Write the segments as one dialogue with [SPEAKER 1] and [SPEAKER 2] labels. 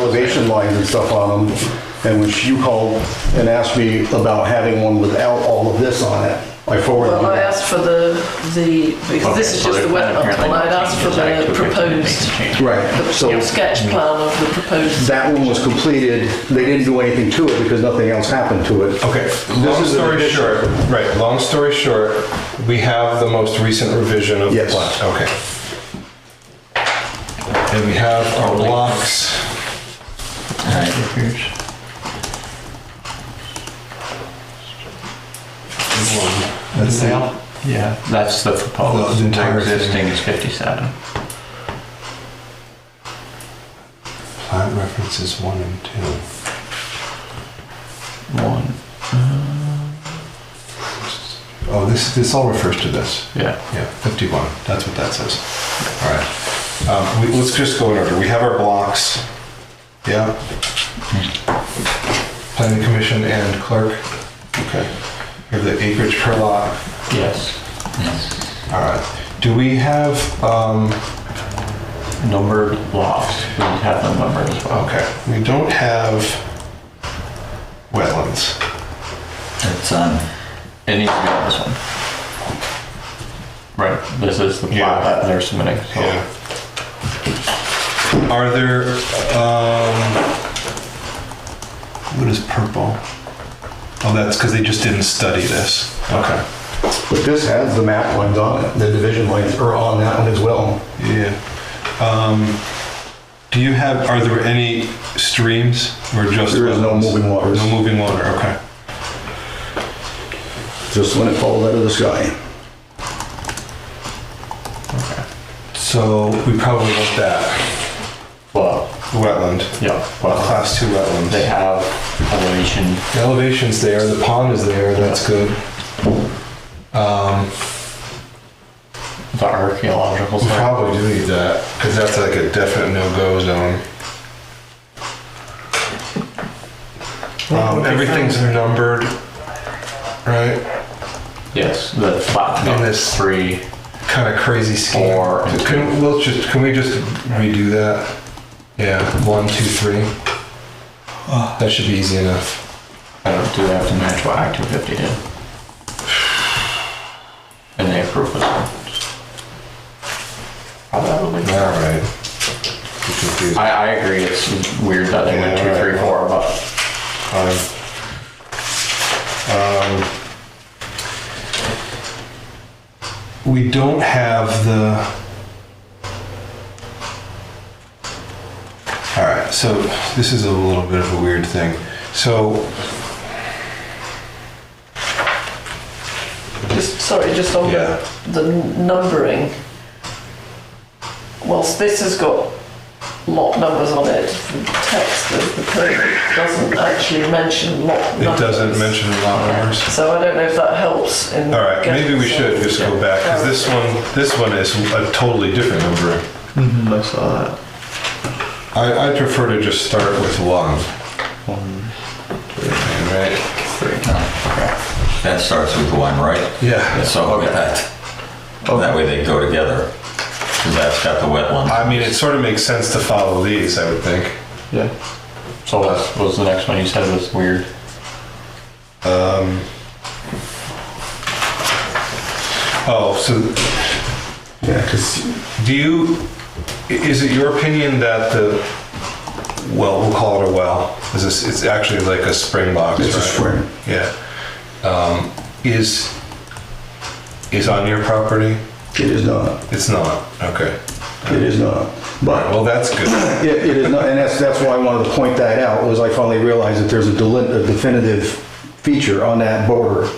[SPEAKER 1] elevation lines and stuff on them. And when you called and asked me about having one without all of this on it, I forwarded
[SPEAKER 2] Well, I
[SPEAKER 1] you.
[SPEAKER 2] asked for the, the, because this
[SPEAKER 3] Okay,
[SPEAKER 2] is just
[SPEAKER 3] so
[SPEAKER 2] the
[SPEAKER 3] they're-
[SPEAKER 2] wet up
[SPEAKER 3] apparently
[SPEAKER 2] one, I'd
[SPEAKER 3] no
[SPEAKER 2] asked for
[SPEAKER 3] changes back
[SPEAKER 2] the
[SPEAKER 3] to original
[SPEAKER 2] proposed,
[SPEAKER 3] thing change.
[SPEAKER 1] Right, so
[SPEAKER 2] the sketch plan of the proposed.
[SPEAKER 1] that one was completed. They didn't do anything to it because nothing else happened to it.
[SPEAKER 4] Okay,
[SPEAKER 1] This
[SPEAKER 4] long
[SPEAKER 1] is an
[SPEAKER 4] story
[SPEAKER 1] addition.
[SPEAKER 4] short, right, long story short, we have the most recent revision of the
[SPEAKER 1] Yes.
[SPEAKER 4] plan. Okay. And we have our blocks.
[SPEAKER 3] Alright, here's-
[SPEAKER 5] That's the, yeah.
[SPEAKER 3] That's the
[SPEAKER 5] The-
[SPEAKER 3] proposed,
[SPEAKER 5] the
[SPEAKER 3] the
[SPEAKER 5] entire thing.
[SPEAKER 3] existing is 57.
[SPEAKER 4] Plat references one and two.
[SPEAKER 3] One,
[SPEAKER 4] Oh, this, this all refers to this.
[SPEAKER 3] yeah.
[SPEAKER 4] Yeah, 51, that's what that says. All right. Um, we- Let's just go in order. We have our blocks. Yeah. Planning Commission and clerk. Okay. We have the acreage per lot.
[SPEAKER 3] Yes.
[SPEAKER 4] All right. Do we have, um,
[SPEAKER 3] Numbered lots, we have them numbered as well.
[SPEAKER 4] okay, we don't have wetlands.
[SPEAKER 3] It's on. It needs to be on this one. Right, this is the
[SPEAKER 4] Yeah.
[SPEAKER 3] plot that they're submitting, so.
[SPEAKER 4] Yeah. Are there, um, what is purple? Oh, that's because they just didn't study this. Okay.
[SPEAKER 1] But this has the map lines on it. The division lines are on that one as well.
[SPEAKER 4] Yeah. Um, do you have, are there any streams or just?
[SPEAKER 1] There is no
[SPEAKER 4] wetlands?
[SPEAKER 1] moving waters.
[SPEAKER 4] No moving water, okay.
[SPEAKER 1] Just when it falls out of the sky.
[SPEAKER 4] So we probably want that,
[SPEAKER 3] Well,
[SPEAKER 4] wetland,
[SPEAKER 3] yeah, well,
[SPEAKER 4] class two wetlands.
[SPEAKER 3] they have elevation,
[SPEAKER 4] The elevation's there, the pond is there, that's good. Um,
[SPEAKER 3] the archaeological
[SPEAKER 4] we
[SPEAKER 3] site.
[SPEAKER 4] probably do need that, because that's like a definite no-go zone. Um, everything's numbered, right?
[SPEAKER 3] Yes, the plot
[SPEAKER 4] And
[SPEAKER 3] number
[SPEAKER 4] this-
[SPEAKER 3] three.
[SPEAKER 4] Kind of crazy scheme.
[SPEAKER 3] Four and
[SPEAKER 4] Can, we'll just, can we just redo that? Yeah, one, two, three. That should be easy enough.
[SPEAKER 3] I don't, do they have to match what Act 250 did? And they approve this one? Probably.
[SPEAKER 4] All right.
[SPEAKER 3] I, I agree, it's weird that they went
[SPEAKER 4] Yeah,
[SPEAKER 3] two, three,
[SPEAKER 4] right.
[SPEAKER 3] four, but
[SPEAKER 4] Um, um, We don't have the. All right, so this is a little bit of a weird thing. So
[SPEAKER 2] Just, sorry, just on
[SPEAKER 4] Yeah.
[SPEAKER 2] the, the numbering. Whilst this has got lot numbers on it, the text of the permit doesn't actually mention lot
[SPEAKER 4] it
[SPEAKER 2] numbers.
[SPEAKER 4] doesn't mention lot numbers.
[SPEAKER 2] So I don't know if that helps in.
[SPEAKER 4] All right,
[SPEAKER 2] getting
[SPEAKER 4] maybe we should
[SPEAKER 2] some-
[SPEAKER 4] just go back, because this one, this one is a totally different number.
[SPEAKER 3] I saw that.
[SPEAKER 4] I, I prefer to just start with one. Right?
[SPEAKER 6] That starts with one, right?
[SPEAKER 4] Yeah.
[SPEAKER 6] So with that, that way they go together. 'Cause that's got the wet one.
[SPEAKER 4] I mean, it sort of makes sense to follow these, I would think.
[SPEAKER 3] Yeah. So what was the next one you said was weird?
[SPEAKER 4] Oh, so
[SPEAKER 1] Yeah, because
[SPEAKER 4] do you, i- is it your opinion that the, well, we'll call it a well, is this, it's actually like a spring box,
[SPEAKER 1] it's a
[SPEAKER 4] right?
[SPEAKER 1] spring.
[SPEAKER 4] Yeah. Um, Is, is on your property?
[SPEAKER 1] It is not.
[SPEAKER 4] It's not, okay.
[SPEAKER 1] It is not. But
[SPEAKER 4] Well, that's good.
[SPEAKER 1] It, it is not, and that's, that's why I wanted to point that out, was I finally realized that there's a delin- a definitive feature on that border.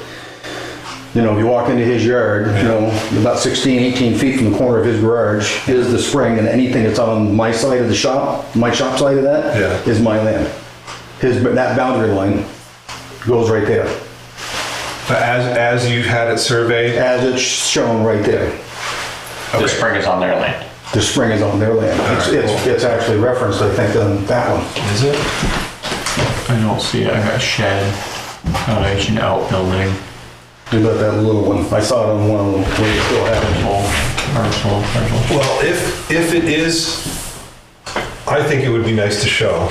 [SPEAKER 1] You know, if you walk into his yard, you know, about 16, 18 feet from the corner of his garage is the spring, and anything that's on my side of the shop, my shop side of that,
[SPEAKER 4] Yeah.
[SPEAKER 1] is my land. His, but that boundary line goes right there,
[SPEAKER 4] But as, as you had it surveyed?
[SPEAKER 1] as it's shown right there.
[SPEAKER 3] The spring is on their land.
[SPEAKER 1] The spring is on their land. It's,
[SPEAKER 4] Alright,
[SPEAKER 1] it's,
[SPEAKER 4] cool.
[SPEAKER 1] it's actually referenced, I think, on that one.
[SPEAKER 4] Is it?
[SPEAKER 3] I don't see it. I got shed, foundation, outbuilding,
[SPEAKER 1] You got that little one, I saw it on one of them, where you still have it.
[SPEAKER 3] parcel, parcel, parcel.
[SPEAKER 4] Well, if, if it is, I think it would be nice to show.